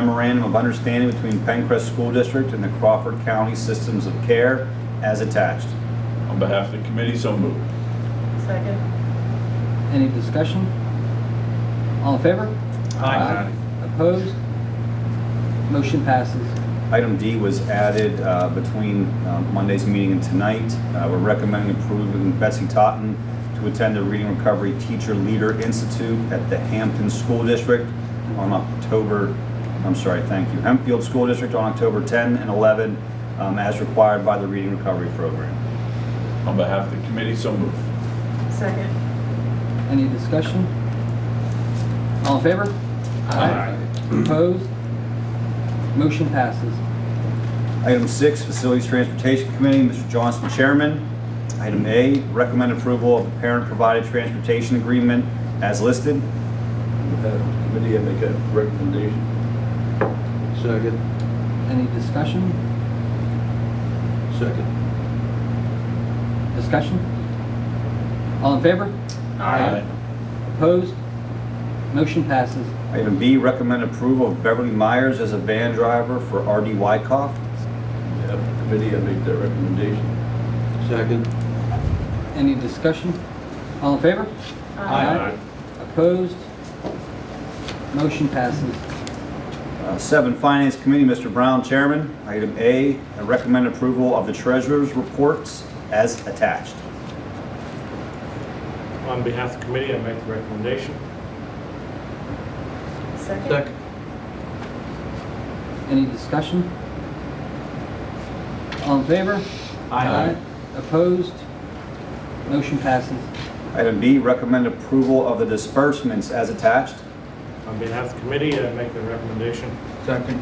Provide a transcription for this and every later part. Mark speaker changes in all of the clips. Speaker 1: memorandum of understanding between Pencrest School District and the Crawford County Systems of Care as attached.
Speaker 2: On behalf of the committee, so moved.
Speaker 3: Second.
Speaker 4: Any discussion? All in favor?
Speaker 2: Aye.
Speaker 4: Opposed? Motion passes.
Speaker 1: Item D was added uh, between uh, Monday's meeting and tonight. Uh, We're recommending approving Betsy Totten to attend the Reading Recovery Teacher Leader Institute at the Hampton School District on October, I'm sorry, thank you, Hempfield School District on October 10 and 11, um, as required by the Reading Recovery Program.
Speaker 2: On behalf of the committee, so moved.
Speaker 3: Second.
Speaker 4: Any discussion? All in favor?
Speaker 2: Aye.
Speaker 4: Opposed? Motion passes.
Speaker 1: Item six, Facilities Transportation Committee, Mr. Johnson, Chairman. Item A, recommend approval of the parent-provided transportation agreement as listed.
Speaker 5: Committee, I make a recommendation. Second.
Speaker 4: Any discussion?
Speaker 5: Second.
Speaker 4: Discussion? All in favor? Opposed? Motion passes.
Speaker 1: Item B, recommend approval of Beverly Myers as a van driver for R.D. Wykoff.
Speaker 5: Yeah, Committee, I make that recommendation. Second.
Speaker 4: Any discussion? All in favor?
Speaker 2: Aye.
Speaker 4: Opposed? Motion passes.
Speaker 1: Uh, Seven, Finance Committee, Mr. Brown, Chairman. Item A, recommend approval of the treasurer's reports as attached.
Speaker 6: On behalf of the committee, I make the recommendation.
Speaker 3: Second.
Speaker 4: Any discussion? All in favor?
Speaker 5: Aye.
Speaker 4: Opposed? Motion passes.
Speaker 1: Item B, recommend approval of the disbursements as attached.
Speaker 6: On behalf of the committee, I make the recommendation.
Speaker 5: Second.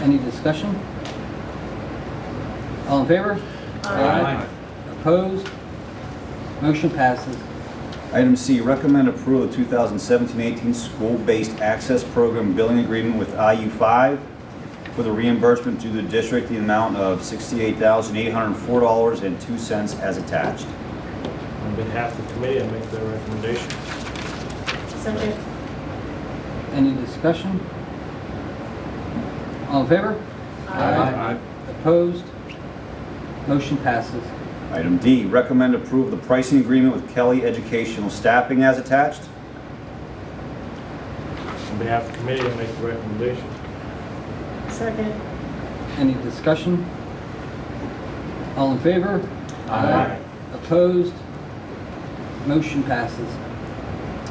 Speaker 4: Any discussion? All in favor? Opposed? Motion passes.
Speaker 1: Item C, recommend approval of 2017-18 School-Based Access Program Billing Agreement with IU5 for the reimbursement to the district, the amount of $68,804.02 as attached.
Speaker 6: On behalf of the committee, I make the recommendation.
Speaker 3: Second.
Speaker 4: Any discussion? All in favor? Opposed? Motion passes.
Speaker 1: Item D, recommend approval of the pricing agreement with Kelly Educational Staffing as attached.
Speaker 6: On behalf of the committee, I make the recommendation.
Speaker 3: Second.
Speaker 4: Any discussion? All in favor?
Speaker 2: Aye.
Speaker 4: Opposed? Motion passes.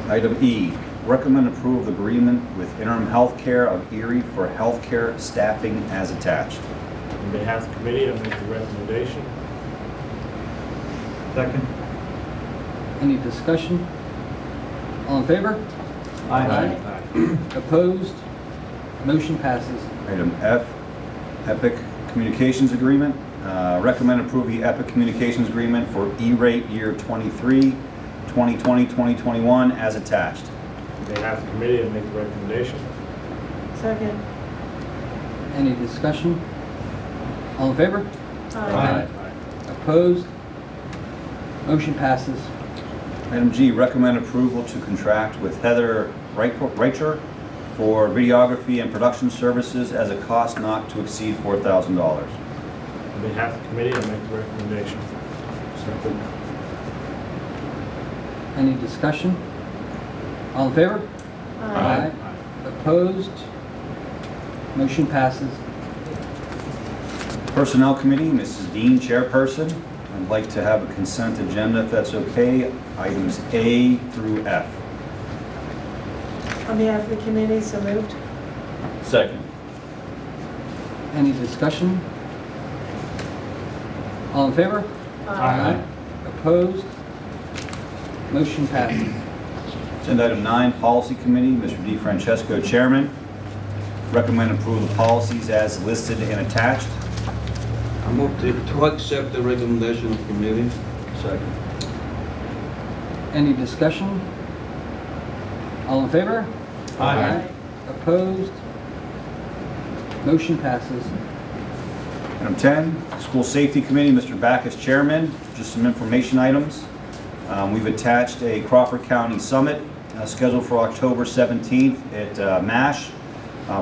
Speaker 1: Item E, recommend approval of the agreement with Interim Healthcare of Erie for healthcare staffing as attached.
Speaker 6: On behalf of the committee, I make the recommendation.
Speaker 5: Second.
Speaker 4: Any discussion? All in favor? Aye. Opposed? Motion passes.
Speaker 1: Item F, Epic Communications Agreement. Uh, Recommend approve the Epic Communications Agreement for E-rate year 23, 2020, 2021, as attached.
Speaker 6: On behalf of the committee, I make the recommendation.
Speaker 3: Second.
Speaker 4: Any discussion? All in favor?
Speaker 3: Aye.
Speaker 4: Opposed? Motion passes.
Speaker 1: Item G, recommend approval to contract with Heather Reichor- Reicher for videography and production services as a cost not to exceed $4,000.
Speaker 6: On behalf of the committee, I make the recommendation.
Speaker 5: Second.
Speaker 4: Any discussion? All in favor?
Speaker 3: Aye.
Speaker 4: Opposed? Motion passes.
Speaker 1: Personnel Committee, Mrs. Dean, Chairperson. I'd like to have a consent agenda, if that's okay, items A through F.
Speaker 3: On behalf of the committee, so moved.
Speaker 2: Second.
Speaker 4: Any discussion? All in favor? Opposed? Motion passes.
Speaker 1: Agenda item nine, Policy Committee, Mr. D. Francesco, Chairman. Recommend approval of policies as listed and attached.
Speaker 5: I move to to accept the recommendation of committee. Second.
Speaker 4: Any discussion? All in favor? Opposed? Motion passes.
Speaker 1: Item 10, School Safety Committee, Mr. Backus, Chairman. Just some information items. Um, We've attached a Crawford County Summit uh, scheduled for October 17th at uh, MASH.